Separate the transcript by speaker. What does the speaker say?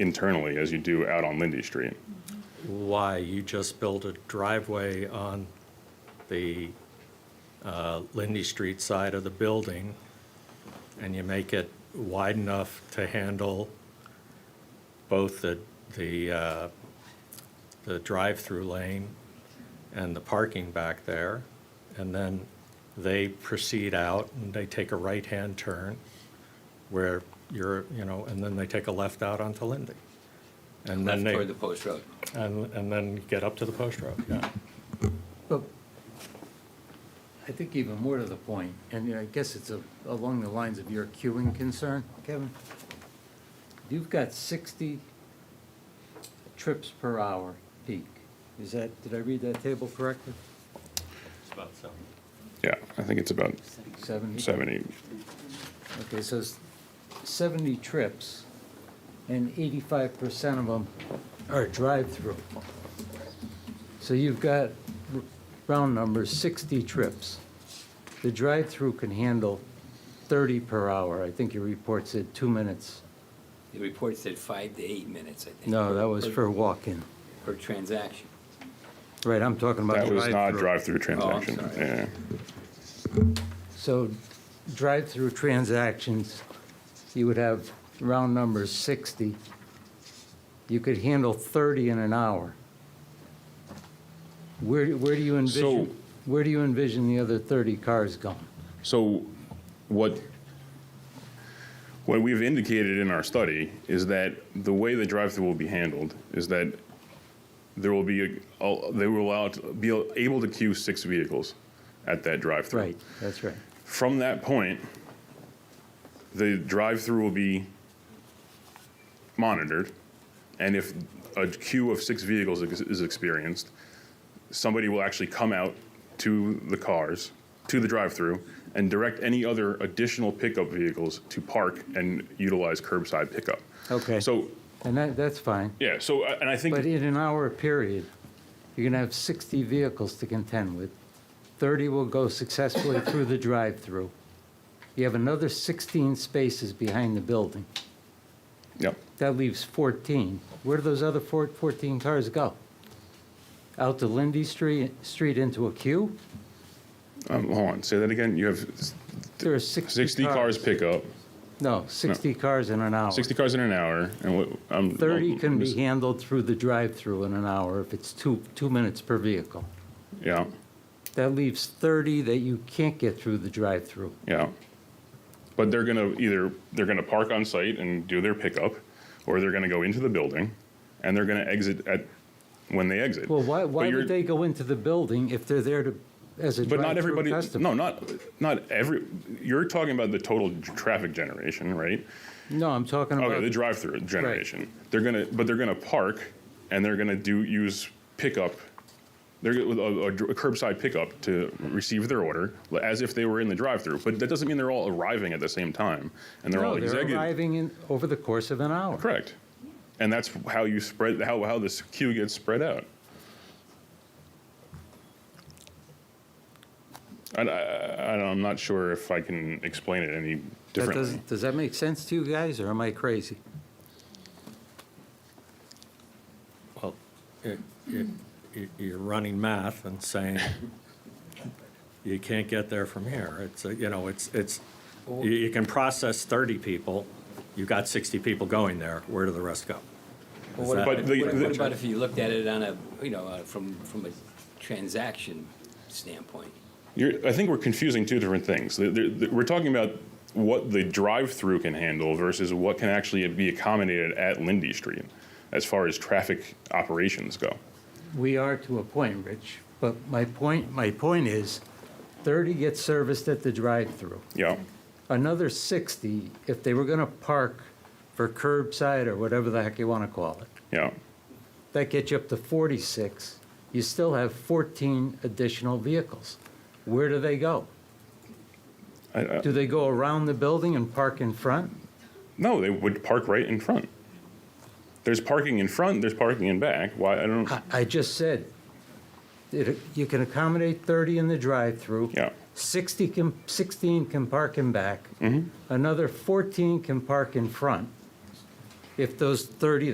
Speaker 1: internally as you do out on Lindy Street.
Speaker 2: Why? You just built a driveway on the uh, Lindy Street side of the building, and you make it wide enough to handle both the, the, uh, the drive-through lane and the parking back there. And then they proceed out and they take a right-hand turn where you're, you know, and then they take a left out onto Lindy. And then
Speaker 3: left
Speaker 2: they.
Speaker 3: toward the post road.
Speaker 2: And, and then get up to the post road, yeah.
Speaker 4: But I think even more to the point, and I guess it's a- along the lines of your queuing concern, Kevin. You've got sixty trips per hour peak. Is that, did I read that table correctly?
Speaker 1: Yeah, I think it's about
Speaker 4: Seventy?
Speaker 1: 70.
Speaker 4: Okay, so it's seventy trips, and eighty-five percent of them are drive-through. So you've got, r- round numbers, sixty trips. The drive-through can handle thirty per hour. I think your report said two minutes.
Speaker 3: The report said five to eight minutes, I think.
Speaker 4: No, that was
Speaker 3: per-
Speaker 4: for walk-in.
Speaker 3: Per transaction.
Speaker 4: Right, I'm talking about
Speaker 1: That was
Speaker 4: drive-through.
Speaker 1: not a drive-through transaction.
Speaker 3: sorry.
Speaker 1: Yeah.
Speaker 4: So drive-through transactions, you would have round numbers 60. You could handle 30 in an hour. Where, where do you
Speaker 1: So-
Speaker 4: envision, where do you envision the other 30 cars going?
Speaker 1: So what what we've indicated in our study is that the way the drive-through will be handled is that there will be a, a- they will allow to be able to queue six vehicles at that drive-through.
Speaker 4: Right, that's right.
Speaker 1: From that point, the drive-through will be monitored, and if a queue of six vehicles ex- is experienced, somebody will actually come out to the cars, to the drive-through, and direct any other additional pickup vehicles to park and utilize curbside pickup.
Speaker 4: Okay.
Speaker 1: So,
Speaker 4: And that, that's fine.
Speaker 1: yeah, so, uh, and I think.
Speaker 4: But in an hour period, you're going to have 60 vehicles to contend with. 30 will go successfully through the drive-through. You have another 16 spaces behind the building.
Speaker 1: Yep.
Speaker 4: That leaves 14. Where do those other four- 14 cars go? Out to Lindy Street, street into a queue?
Speaker 1: Um, hold on, say that again. You have s-
Speaker 4: There are 60 cars.
Speaker 1: 60 cars pickup,
Speaker 4: No, 60 cars in an hour.
Speaker 1: 60 cars in an hour, and what, I'm.
Speaker 4: 30 can be
Speaker 1: I'm-
Speaker 4: handled through the drive-through in an hour if it's two, two minutes per vehicle.
Speaker 1: Yeah,
Speaker 4: That leaves 30 that you can't get through the drive-through.
Speaker 1: yeah. But they're gonna either, they're gonna park on site and do their pickup, or they're gonna go into the building, and they're gonna exit at, when they exit.
Speaker 4: Well, why,
Speaker 1: But
Speaker 4: why
Speaker 1: you're-
Speaker 4: would they go into the building if they're there to, as a
Speaker 1: But not
Speaker 4: drive-through
Speaker 1: everybody,
Speaker 4: customer?
Speaker 1: no, not, not every, you're talking about the total j- traffic generation, right?
Speaker 4: No, I'm talking about.
Speaker 1: Okay, Oh, the drive-through generation. They're gonna, but they're gonna park, and they're gonna do, use pickup, they're, gonna- a, a dr- curbside pickup to receive their order, as if they were in the drive-through. But that doesn't mean they're all arriving at the same time, and they're all
Speaker 4: No, they're
Speaker 1: executing.
Speaker 4: arriving in, over the course of an hour.
Speaker 1: Correct. And that's how you spread, how, how this queue gets spread out. And I, I, I'm not sure if I can explain it any
Speaker 4: That
Speaker 1: differently.
Speaker 4: does, does that make sense to you guys, or am I crazy?
Speaker 2: Well, it- it- you- you're running math and saying you can't get there from here. It's, a- you know, it's, it's, you- you can process 30 people, you've got 60 people going there, where do the rest go?
Speaker 3: Well, what
Speaker 2: that-
Speaker 3: about,
Speaker 1: But the-
Speaker 3: what-
Speaker 1: the-
Speaker 3: what about if you looked at it on a, you know, uh, from, from a transaction standpoint?
Speaker 1: You're, I think we're confusing two different things. The- the- the- we're talking about what the drive-through can handle versus what can actually be accommodated at Lindy Street, as far as traffic operations go.
Speaker 4: We are to a point, Rich, but my point, my point is, 30 get serviced at the drive-through.
Speaker 1: Yeah,
Speaker 4: Another 60, if they were going to park for curbside or whatever the heck you want to call it,
Speaker 1: yeah,
Speaker 4: that gets you up to 46. You still have 14 additional vehicles. Where do they go?
Speaker 1: I- I-
Speaker 4: Do they go around the building and park in front?
Speaker 1: No, they would park right in front. There's parking in front, there's parking in back. Why, I don't,
Speaker 4: I- I just said, it- you can accommodate 30 in the drive-through.
Speaker 1: Yeah.
Speaker 4: 60 can, 16 can park in back. Another 14 can park in front. If those 30